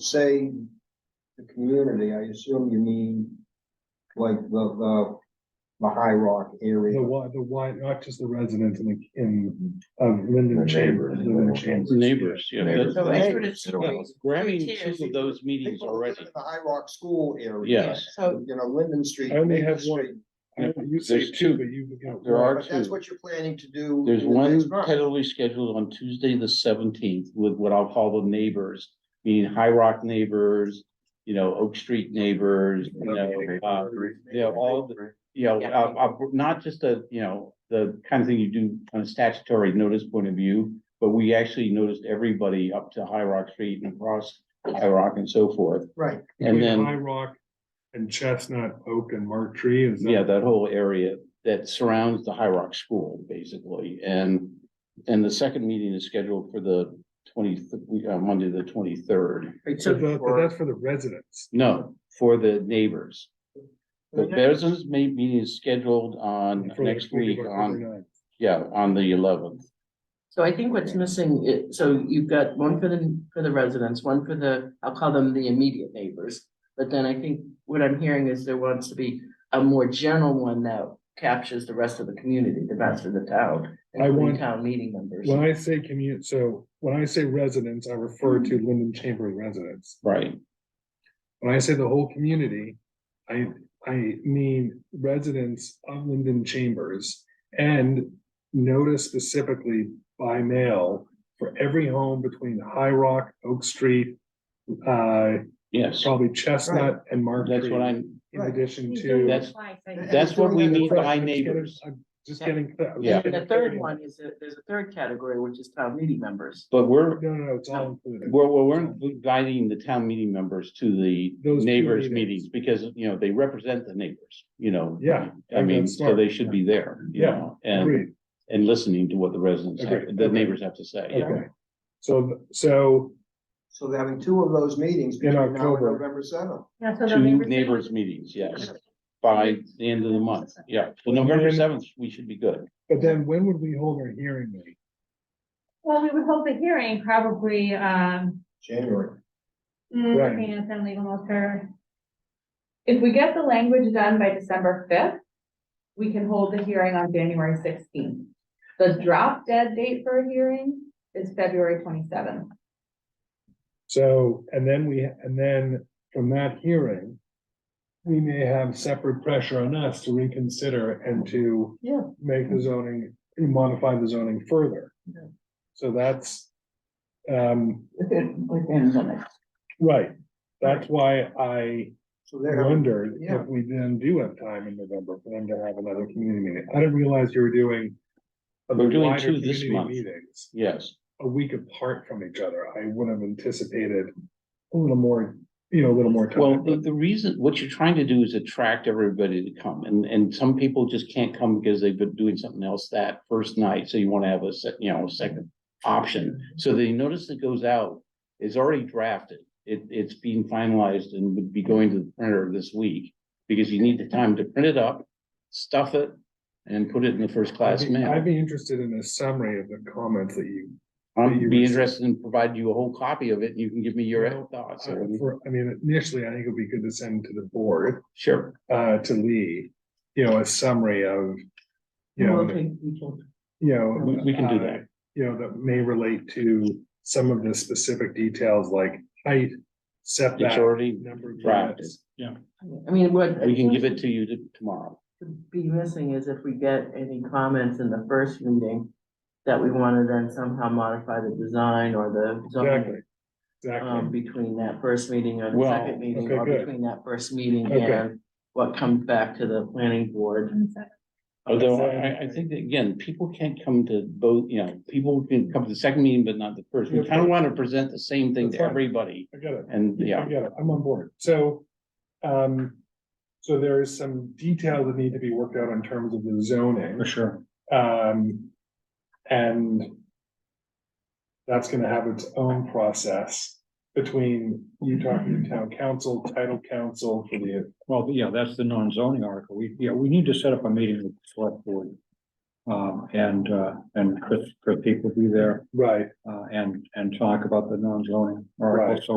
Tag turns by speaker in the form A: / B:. A: say the community, I assume you mean like the, the, the High Rock
B: The
A: area.
B: why, the why, not just the residents in, the- in, um, Linden
C: The
B: Chambers.
C: neighbors.
B: Linden Chambers.
D: Neighbors, yeah.
C: Neighbors.
A: So
D: that- that-
A: that's
E: what it's-
D: yeah,
E: it's-
D: Grabbing
E: it's-
D: two of those meetings
A: People who live
D: already.
A: in The High Rock School area.
D: Yes.
E: So,
A: You know, Linden Street.
B: I only
A: Maple
B: have one.
A: Street,
B: I- You say
D: There's
B: two,
D: two.
B: but you. you know,
D: There are-
A: But that's
D: two.
A: what you're planning to do.
D: There's
A: in the
D: one
A: next month.
D: tentatively scheduled on Tuesday, the seventeenth, with what I'll call the neighbors, meaning High Rock neighbors, you know, Oak Street neighbors, you know, uh, yeah, all the, you know,
E: Yeah.
D: uh, uh, not just the, you know, the kind of thing you do on a statutory notice point of view, but we actually noticed everybody up to High Rock Street and across High Rock and so forth.
A: Right.
D: And
B: between
D: then,
B: High Rock and Chestnut, Oak and Mark Tree is. that-
D: yeah, that whole area that surrounds the High Rock School, basically, and, and the second meeting is scheduled for the twenty, uh, Monday, the twenty-third.
B: But that- but that's for the residents.
D: No, for the neighbors. The
A: Okay.
D: Bear's May meeting is scheduled on
B: for the
D: next week
B: October
D: on,
B: 9th.
D: yeah, on the eleventh.
E: so I think what's missing, i- so you've got one for the, for the residents, one for the, I'll call them the immediate neighbors. But then I think what I'm hearing is there wants to be a more general one that captures the rest of the community, the rest of the town.
B: I
E: including
B: want-
E: Town meeting members.
B: When I say commute, so when I say residents, I refer to Linden Chamber residents.
D: Right,
B: When I say the whole community, I, I mean residents of Linden Chambers. And notice specifically by mail for every home between High Rock, Oak Street, uh,
D: yes,
B: probably Chestnut and Mark
D: that's
B: Tree.
D: what I'm,
B: In addition to.
D: that's-
A: And
D: that's what we
A: doing that
D: mean by
A: across-
D: neighbors.
B: I'm Just getting. clear.
D: Yeah.
E: And the third one is, that there's a third category, which is town meeting members.
D: But we're,
B: No, no, no, it's all included.
D: we're, we're we're inviting the town meeting members to the
B: Those two
D: neighbors
B: meetings.
D: meetings because, you know, they represent the neighbors, you know.
B: Yeah, I
D: I
B: think
D: mean,
B: that's
D: so
B: smart.
D: they should be there, you
B: Yeah,
D: know, and,
B: Agreed,
D: and listening to what the residents, have-
B: Agreed,
D: the
B: okay.
D: neighbors have to say. yeah.
B: okay. So, so
A: So they're having two of those meetings
B: In
A: between now and
B: October.
A: November seventh.
F: Yeah, so the
D: Two
F: neighbors.
D: neighbors meetings, yes, by the end of the month, yeah, so November seventh, we should be good.
B: But then when would we hold our hearing meeting?
F: Well, we would hold the hearing probably, um,
A: January.
F: mm,
B: Right.
F: looking at them legal notice.
G: If we get the language done by December fifth, we can hold the hearing on January sixteenth. The drop dead date for a hearing is February twenty-seventh.
B: So, and then we, and then from that hearing, we may have separate pressure on us to reconsider and to
E: Yeah.
B: make the zoning, modify the zoning further.
E: Yeah.
B: So that's, um,
E: Within, within limits.
B: right. That's why I
A: So they're having
B: wondered
A: yeah.
B: if we then do have time in November for them to have another community meeting. I didn't realize you were doing
D: We're doing
B: wider
D: two this
B: community
D: month.
B: Meetings.
D: Yes,
B: a week apart from each other, I would have anticipated a little more, you know, a little more
D: well,
B: time.
D: the, the reason, what you're trying to do is attract everybody to come, and, and some people just can't come because they've been doing something else that first night, so you wanna have a sec, you know, a second option. So the notice that goes out is already drafted, it, it's being finalized and would be going to the printer this week, because you need the time to print it up, stuff it, and put it in the first
B: I'd
D: class
B: be-
D: mail.
B: I'd be interested in a summary of the comments that you,
D: I'd
B: you
D: be
B: received.
D: interested in providing you a whole copy of it, and you can give me your
B: Well, I
D: thoughts. or-
B: uh, for- I mean, initially, I think it'd be good to send to the board,
D: Sure,
B: uh, to Lee, you know, a summary of, you
E: Well,
B: know,
E: okay, we can-
B: you know.
D: We- we can do that.
B: uh, You know, that may relate to some of the specific details like height,
D: it's
B: setback,
D: already
B: number of
D: drafted,
B: units.
D: yeah,
E: I mean, what.
D: we can give it to you t- tomorrow.
E: to be missing is if we get any comments in the first meeting that we want to then somehow modify the design or the
B: Exactly,
E: zoning um,
B: exactly.
E: between that first meeting or the
D: Well,
E: second meeting
B: okay,
E: or
B: good.
E: between that first meeting
B: Okay.
E: and what comes back to the planning board.
D: Although
B: That's-
D: I, I think that, again, people can't come to both, you know, people can come to the second meeting, but not the first. We kind of want to present the same thing
B: That's
D: to
B: fine.
D: everybody,
B: I got it.
D: and,
B: Yeah,
D: yeah,
B: I get it. I'm on board. So, um, so there is some detail that need to be worked out in terms of the zoning.
C: sure.
B: Um, and that's gonna have its own process between you talking to town council, title council for the,
C: Well, yeah, that's the non-zoning article. We, yeah, we need to set up a meeting with the select board. Um, and, uh, and Chris, Chris Peak will be there,
B: right?
C: uh, and, and talk about the non-zoning
B: Right.
C: article. So